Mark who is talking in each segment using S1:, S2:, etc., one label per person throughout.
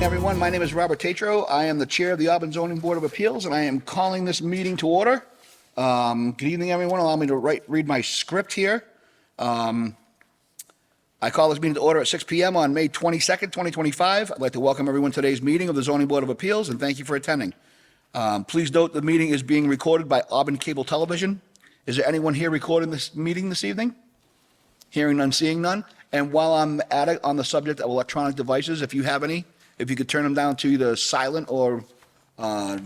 S1: everyone. My name is Robert Tatro. I am the Chair of the Auburn Zoning Board of Appeals, and I am calling this meeting to order. Um, Good evening, everyone. Allow me to write, read my script here. Um, I call this meeting to order at 6 PM on May 22nd, 2025. I'd like to welcome everyone to today's meeting of the Zoning Board of Appeals and thank you for attending. Um, Please note the meeting is being recorded by Auburn Cable Television. Is there anyone here recording this meeting this evening? Hearing none, seeing none. And while I'm at it, on the subject of electronic devices, if you have any, if you could turn them down to either silent or uh,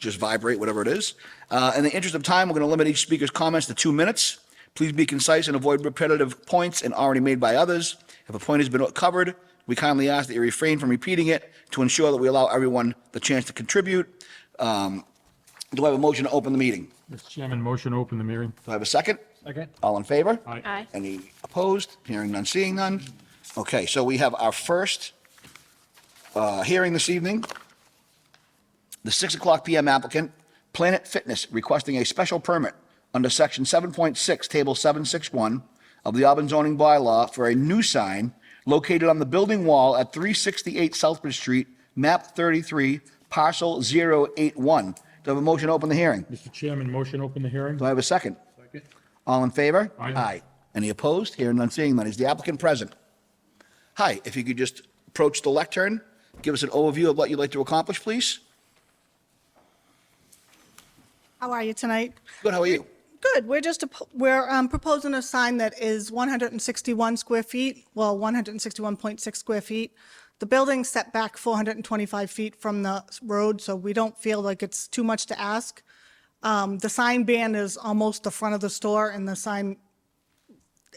S1: just vibrate, whatever it is. Uh, In the interest of time, we're going to limit each speaker's comments to two minutes. Please be concise and avoid repetitive points and already made by others. If a point has been covered, we kindly ask that you refrain from repeating it to ensure that we allow everyone the chance to contribute. Um, Do I have a motion to open the meeting?
S2: Mr. Chairman, motion to open the hearing.
S1: Do I have a second?
S2: Second.
S1: All in favor?
S2: Aye.
S3: Aye.
S1: Any opposed? Hearing none, seeing none. Okay, so we have our first uh, hearing this evening. The 6 o'clock PM applicant, Planet Fitness, requesting a special permit under Section 7.6, Table 761 of the Auburn zoning bylaw for a new sign located on the building wall at 368 Southbridge Street, MAP 33, Parcel 081. Do I have a motion to open the hearing?
S2: Mr. Chairman, motion to open the hearing.
S1: Do I have a second? All in favor?
S2: Aye.
S1: Any opposed? Hearing none, seeing none. Is the applicant present? Hi, if you could just approach the lectern, give us an overview of what you'd like to accomplish, please.
S4: How are you tonight?
S1: Good, how are you?
S4: Good. We're just, ap- we're um, proposing a sign that is 161 square feet, well, 161.6 square feet. The building's set back 425 feet from the s- road, so we don't feel like it's too much to ask. Um, The sign ban is almost the front of the store, and the sign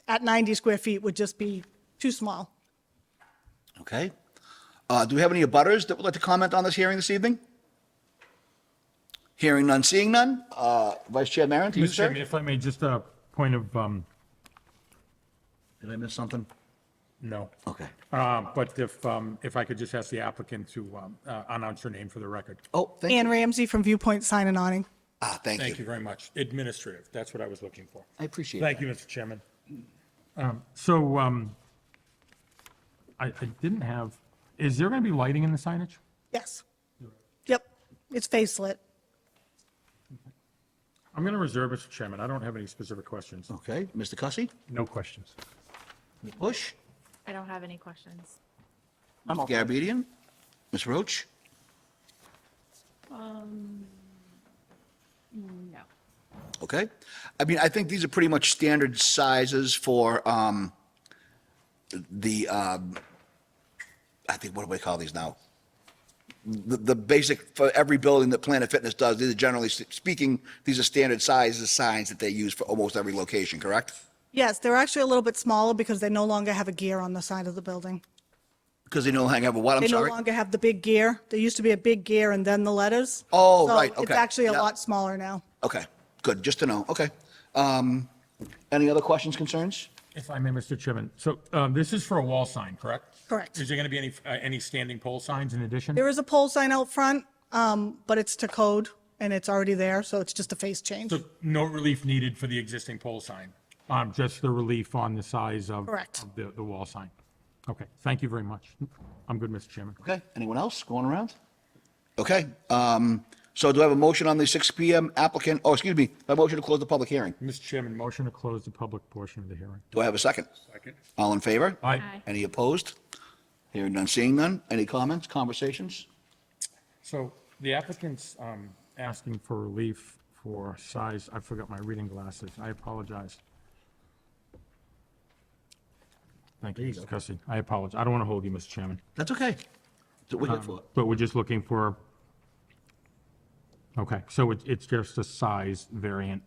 S4: at 90 square feet would just be too small.
S1: Okay. Uh, Do we have any abutters that would like to comment on this hearing this evening? Hearing none, seeing none. Uh, Vice Chair Maron, to you,
S2: Mr.
S1: sir?
S2: Chairman, if I may, just a point of, um,
S1: Did I miss something?
S2: no.
S1: Okay.
S2: Uh, But if, um, if I could just ask the applicant to um, uh, announce your name for the record.
S1: Oh, thank
S4: Ann
S1: you.
S4: Ramsey from Viewpoint Sign and Awning.
S1: Ah, thank
S2: Thank you
S1: you.
S2: very much. Administrative, that's what I was looking for.
S1: I appreciate it.
S2: Thank you, Mr. Chairman. Um, So um, I I didn't have, is there going to be lighting in the signage?
S4: Yes. Yep, it's face lit.
S2: I'm going to reserve, Mr. Chairman. I don't have any specific questions.
S1: Okay, Mr. Cussy,
S2: No questions.
S1: Bush,
S3: I don't have any questions.
S1: Garabedian, Ms. Roach?
S3: No.
S1: Okay. I mean, I think these are pretty much standard sizes for um, the, um, I think, what do we call these now? The, the basic, for every building that Planet Fitness does, these are generally speaking, these are standard sizes, signs that they use for almost every location, correct?
S4: Yes, they're actually a little bit smaller because they no longer have a gear on the side of the building.
S1: Because they don't hang over what, I'm
S4: They no
S1: sorry?
S4: longer have the big gear. There used to be a big gear and then the letters.
S1: Oh,
S4: So
S1: right,
S4: It's
S1: okay,
S4: actually a
S1: yeah.
S4: lot smaller now.
S1: Okay, good, just to know, okay. Um, Any other questions, concerns?
S2: If I may, Mr. Chairman, so um, this is for a wall sign, correct?
S4: Correct.
S2: Is there going to be any, uh, any standing pole signs in addition?
S4: There is a pole sign out front, um, but it's to code and it's already there, so it's just a face change.
S2: So no relief needed for the existing pole sign? Um, Just the relief on the size of
S4: Correct.
S2: of the, the wall sign. Okay, thank you very much. I'm good, Mr. Chairman.
S1: Okay, anyone else going around? Okay, um, so do I have a motion on the 6 PM applicant, oh, excuse me, a motion to close the public hearing?
S2: Mr. Chairman, motion to close the public portion of the hearing.
S1: Do I have a second?
S2: Second.
S1: All in favor?
S2: Aye.
S3: Aye.
S1: Any opposed? Hearing none, seeing none. Any comments, conversations?
S2: So the applicant's um, asking for relief for size, I forgot my reading glasses, I apologize. Thank you, Mr. Cussy. I apologize. I don't want to hold you, Mr. Chairman.
S1: That's okay. That's what we're
S2: Um,
S1: here for.
S2: But we're just looking for, okay, so it- it's just a size variant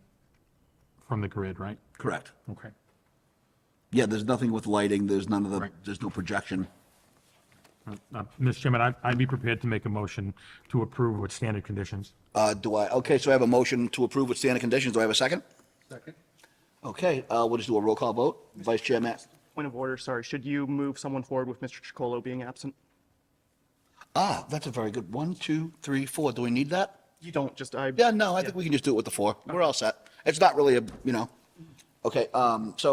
S2: from the grid, right?
S1: Correct.
S2: Okay.
S1: Yeah, there's nothing with lighting, there's none of the,
S2: Right.
S1: there's no projection.
S2: Uh, Mr. Chairman, I'd- I'd be prepared to make a motion to approve with standard conditions.
S1: Uh, do I, okay, so I have a motion to approve with standard conditions. Do I have a second?
S5: Second.
S1: Okay, uh, we'll just do a roll call vote. Vice Chair Matt.
S5: Point of order, sorry. Should you move someone forward with Mr. Chacolo being absent?
S1: Ah, that's a very good. One, two, three, four. Do we need that?
S5: You don't, just I.
S1: Yeah, no, I think we can just do it with the four. We're all set. It's not really a, you know. Okay, um, so